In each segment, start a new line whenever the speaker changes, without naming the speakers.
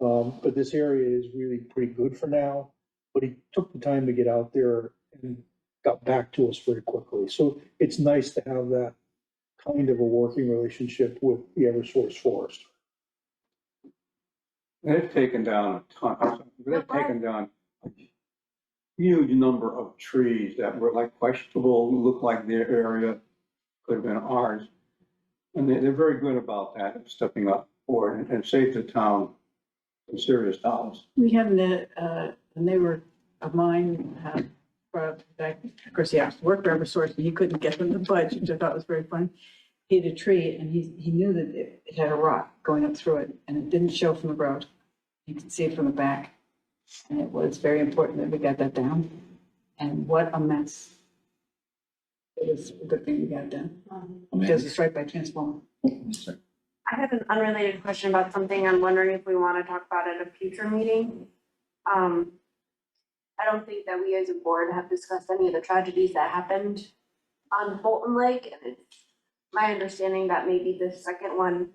Um, but this area is really pretty good for now, but he took the time to get out there and got back to us very quickly. So it's nice to have that kind of a working relationship with the Eversource forest.
They've taken down a ton, they've
why?
taken down a huge number of trees that were like questionable, looked like their area could have been ours. And they, they're very good about that, stepping up for it and saved the town some serious dollars.
We have the, uh, a neighbor of mine, uh, from back, of course, he asked to work for Eversource, and he couldn't get them the budget, which I thought was very funny. He had a tree, and he, he knew that it it had a rock going up through it, and it didn't show from the road. You could see it from the back, and it was very important that we got that down, and what a mess. It was a good thing we got it done, because it's right by transformer.
I had an unrelated question about something. I'm wondering if we want to talk about at a future meeting. Um, I don't think that we as a board have discussed any of the tragedies that happened on Bolton Lake. And it's my understanding that maybe the second one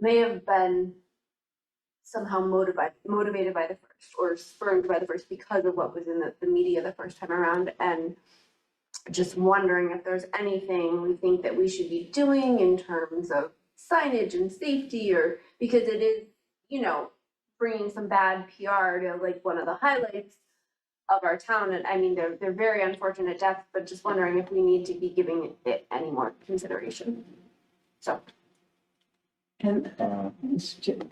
may have been somehow motivated, motivated by the first or spurred by the first because of what was in the, the media the first time around. And just wondering if there's anything we think that we should be doing in terms of signage and safety or because it is, you know, bringing some bad PR to like one of the highlights of our town. And I mean, they're, they're very unfortunate deaths, but just wondering if we need to be giving it any more consideration. So.
And,
Uh,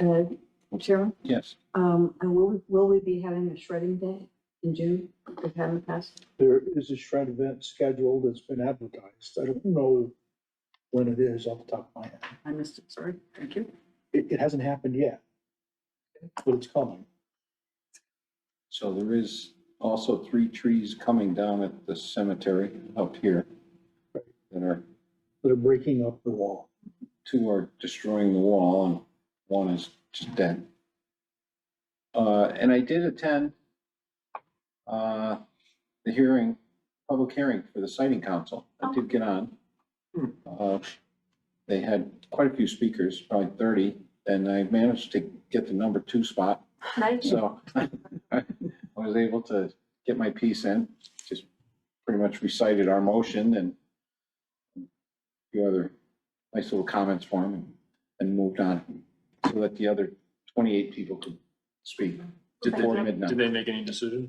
uh, Chairman?
Yes,
Um, and will, we- will we be having a shredding day in June? We've had in the past.
There is a shred event scheduled that's been advertised. I don't know when it is off the top of my head.
I missed it, sorry. Thank you.
It, it hasn't happened yet, but it's coming.
so there is also three trees coming down at the cemetery up here. That are,
They're breaking up the wall.
two are destroying the wall and one is just dead. Uh, and I did attend, uh, the hearing, public hearing for the sighting council. I did get on.
Hmm.
Uh, They had quite a few speakers, probably thirty, and I managed to get the number two spot.
Nice.
So I was able to get my piece in, just pretty much recited our motion and a few other nice little comments for him and- and moved on so that the other 28 people could speak
Did
before
they, did
midnight.
they make any decision?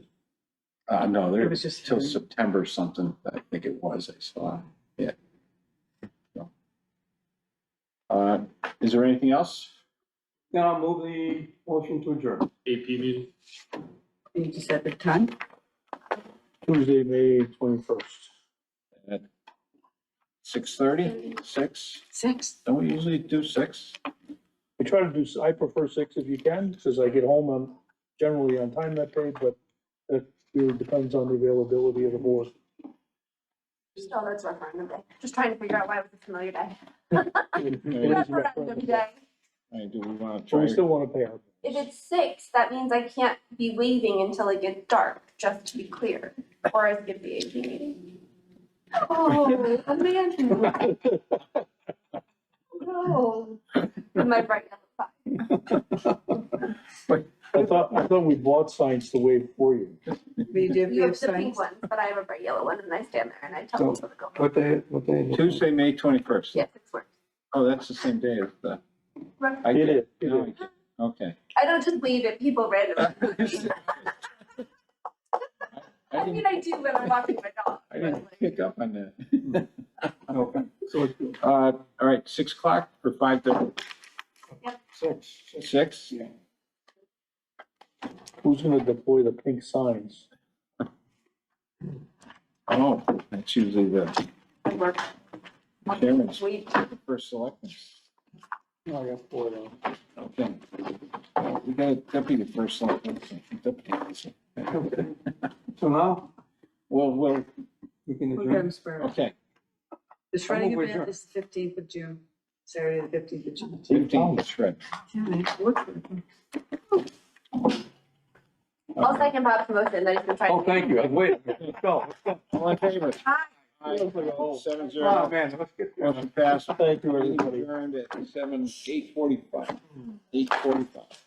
Uh, no,
It
there
was just.
till September something, I think it was, I saw, yeah. So. Uh, Is there anything else?
Now I'll move the motion to adjourn.
AP meeting?
You just said the time?
Tuesday, May twenty-first.
6:30, 6?
Six.
Don't we usually do 6?
I try to do, s- I prefer six if you can, because I get home, I'm generally on time that day, but that really depends on the availability of the board.
Oh, that's referendum day. Just trying to figure out why it was a familiar day.
It is a
Referendum
referendum.
day.
Hey, do we want to
But
try?
we still want to pay our.
If it's six, that means I can't be waving until it gets dark, just to be clear, or I skip the AP meeting. Oh, Amanda, no. My bright yellow flag.
I thought, I thought we bought signs to waive for you.
We did, we
You
have
have the pink
signs.
ones, but I have a bright yellow one and I stand there and I tell people to go.
What they, what they.
Tuesday, May twenty-first.
Yes, it's works.
Oh, that's the same day as the.
Right.
I
It
did-
is, it
no,
is.
I did. Okay.
I don't just leave it, people
I
randomly. I mean,
didn't,
I do when I'm walking my dog.
I didn't pick up on that.
Okay, so it's
Uh, all right, six o'clock or five thirty,
six, six,
six?
yeah.
Who's gonna deploy the pink signs?
Oh, that's usually the
I work.
Chairman's.
We-
first selectman.
No, I got four of them.
Okay. Uh, We got a deputy first selectman. Deputy.
Okay. So now
Well, well,
we can
We'll
adjourn.
get them squared away.
okay.
The shredding
Oh,
over
event
here.
is the fifteenth of June, Saturday, the fifteenth of June.
Fifteen, shred.
Yeah, I worked with them.
I'll second Bob's motion, I just been trying.
Oh, thank you. Wait, let's go, let's go.
All in favor?
Aye.
Aye. Seven
Oh,
zero.
man, let's get.
Motion passed.
Thank you,
Meeting
everybody.
Adjourned at seven, eight forty-five, eight forty-five.